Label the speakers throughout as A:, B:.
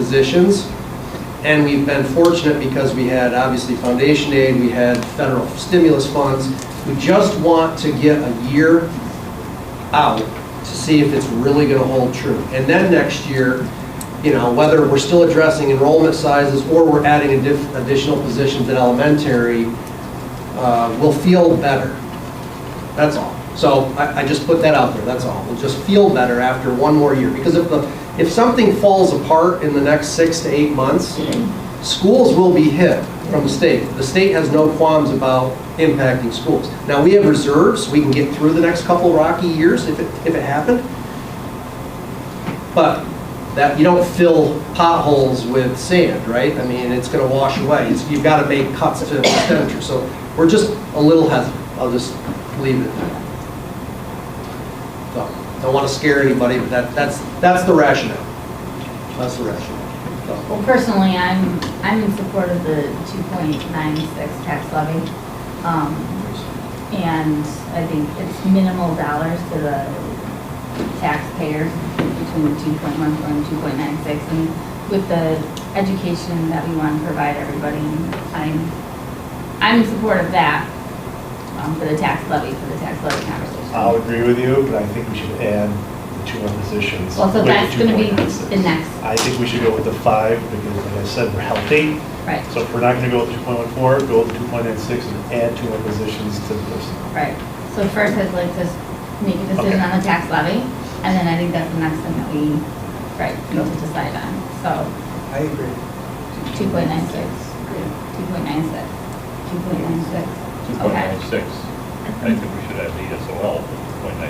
A: positions. And we've been fortunate because we had, obviously, foundation aid, we had federal stimulus funds. We just want to get a year out to see if it's really going to hold true. And then next year, you know, whether we're still addressing enrollment sizes or we're adding addi- additional positions in elementary, uh, we'll feel better. That's all. So I, I just put that out there, that's all. We'll just feel better after one more year. Because if the, if something falls apart in the next six to eight months, schools will be hit from the state. The state has no qualms about impacting schools. Now, we have reserves, we can get through the next couple rocky years if it, if it happened. But that, you don't fill potholes with sand, right? I mean, it's gonna wash away. It's- You've gotta make cuts to expenditure. So we're just a little hesitant. I'll just leave it at that. So, Don't wanna scare anybody, but that, that's, that's the rationale. That's the rationale. So-
B: Well, personally, I'm, I'm in support of the 2.96 tax levy. Um, And I think it's minimal dollars to the taxpayers between 2.14 and 2.96. And with the education that we want to provide everybody, I'm, I'm in support of that um, for the tax levy, for the tax levy conversation.
C: I'll agree with you, but I think we should add the two more positions.
B: Well, so
C: with the
B: that's gonna be
C: 2.96.
B: the next.
C: I think we should go with the five, because like I said, we're healthy.
B: Right,
C: So if we're not gonna go with two point one four, go with two point nine six and add two more positions to the list.
B: right. So first, I'd like to make a
C: Okay.
B: decision on the tax levy, and then I think that's the next thing that we, right, need to decide on. So
D: I agree.
B: 2.96, 2.96, 2.96. Okay.
E: 2.96. I think we should add the ESOL, 2.96.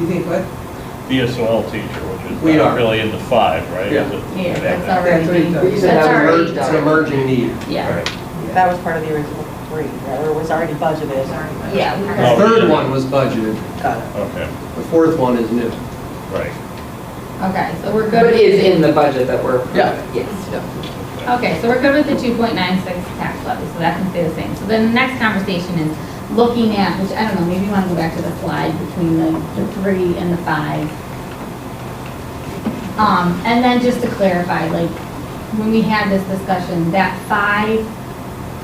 D: You think what?
E: The ESOL teacher, which is
A: We
E: not
A: are.
E: really in the five, right?
A: Yeah.
B: Yeah, that's
E: all right.
D: That's what
B: already,
D: he thought.
F: He said
B: that's
F: that was
B: already,
F: merged
A: It's an emerging need.
B: yeah,
F: That was part of the original three, right, or was already budgeted.
B: yeah. we
A: The
E: Oh.
B: got-
A: third one was budgeted,
F: Got it.
E: Okay,
A: the fourth one is new.
E: right.
B: Okay, so we're good.
F: But
B: with-
F: it is in the budget that we're.
A: Yeah.
F: Yes.
B: Okay, so we're good with the two point nine six tax levy, so that can stay the same. So then the next conversation is looking at, which I don't know, maybe you want to go back to the slide between the, the three and the five. Um, and then just to clarify, like, when we had this discussion, that five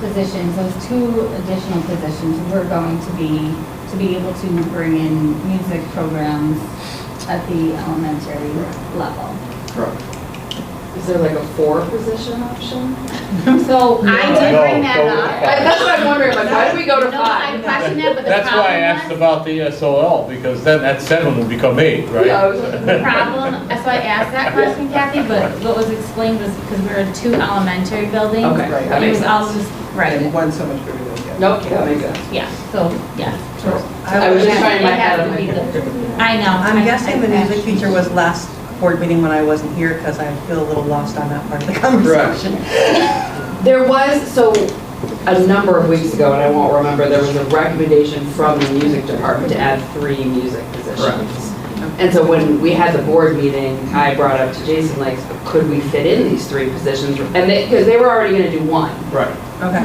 B: positions, those two additional positions, were going to be, to be able to bring in music programs at the elementary level.
F: Is there like a four position option?
B: So I
C: No.
B: did bring
C: No,
B: that up.
C: go with
F: I- That's what I'm wondering, like, why did we go to
B: No, I
F: five?
B: questioned that, but the
E: That's why I asked
B: problem was,
E: about the ESOL, because then that seven would become eight,
F: Yeah, I
E: right?
F: was-
B: the problem, that's why I asked that question, Kathy, but what was explained was because we were in two elementary buildings.
F: Okay, right, that
B: It
F: makes
B: was all just,
D: And
B: right,
D: one so much bigger than the other.
F: Nope, that makes sense.
B: yeah, so, yeah. sure.
F: I was just trying my
B: It
F: head
B: has
F: on
B: to be
F: my.
B: the- I know. I-
G: I'm guessing the
B: I-
G: music teacher was last board meeting when I wasn't here because I feel a little lost on that part of the conversation.
F: There was, so, a number of weeks ago, and I won't remember, there was a recommendation from the music department to add three music positions. And so when we had the board meeting, I brought up to Jason, like, could we fit in these three positions? And they, because they were already gonna do one.
A: Right.
G: Okay.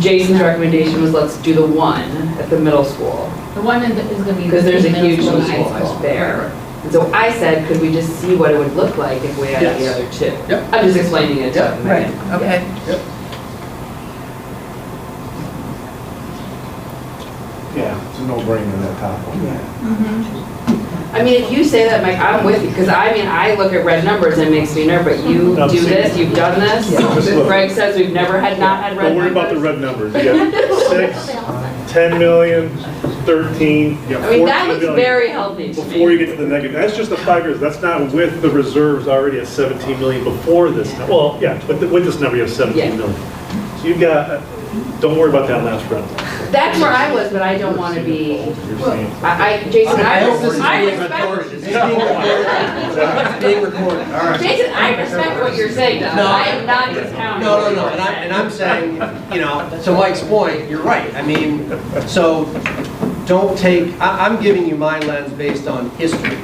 F: Jason's recommendation was let's do the one at the middle school,
B: The one in the- is gonna be.
F: because there's a
B: between
F: huge
B: middle
F: middle
B: and high
F: school there. And so I said, could we just see what it would look like if we added the
A: Yes.
F: other two?
A: Yep.
F: I'm just explaining it to
A: Yep.
F: him.
G: Right, okay.
C: Yeah, it's a no-brainer, that top one.
D: Yeah.
F: I mean, if you say that, Mike, I'm with you, because I mean, I look at red numbers and it makes me nervous, but you
C: No,
F: do
C: see-
F: this, you've done this.
C: Just look.
F: Greg says we've never had, not had red
C: Don't worry
F: numbers.
C: about the red numbers, you got six,
B: They all suck.
C: 10 million, 13, you got
F: I mean, that
C: 14
F: looks
C: million.
F: very healthy to
C: Before you
F: me.
C: get to the negative, that's just the five years, that's not with the reserves already at 17 million before this, nu- well, yeah, but with this number, you have 17
F: Yeah.
C: million. So you've got, uh, don't worry about that last round.
F: That's where I was, but I don't want to be,
C: You're saying-
F: I, I, Jason, I respect, I respect
A: It's being recorded. It's being recorded, all right.
F: Jason, I respect what you're saying, though.
A: No.
F: I am not discounting.
A: No,
F: what
A: no, no,
F: you're
A: and I,
F: saying.
A: and I'm saying, you know, to Mike's point, you're right, I mean, so, don't take, I, I'm giving you my lens based on history.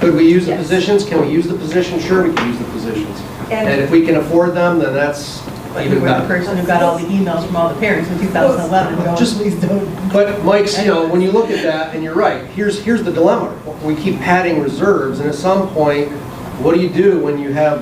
A: Could we use the
F: Yes.
A: positions, can we use the positions? Sure, we can use the positions. And
G: And
A: if we can afford them, then that's
G: you
A: even
G: were the
A: better.
G: person who got all the emails from all the parents in 2011 going,
A: Just-
G: please don't.
A: But Mike's, you know, when you look at that, and you're right, here's, here's the dilemma. We keep padding reserves, and at some point, what do you do when you have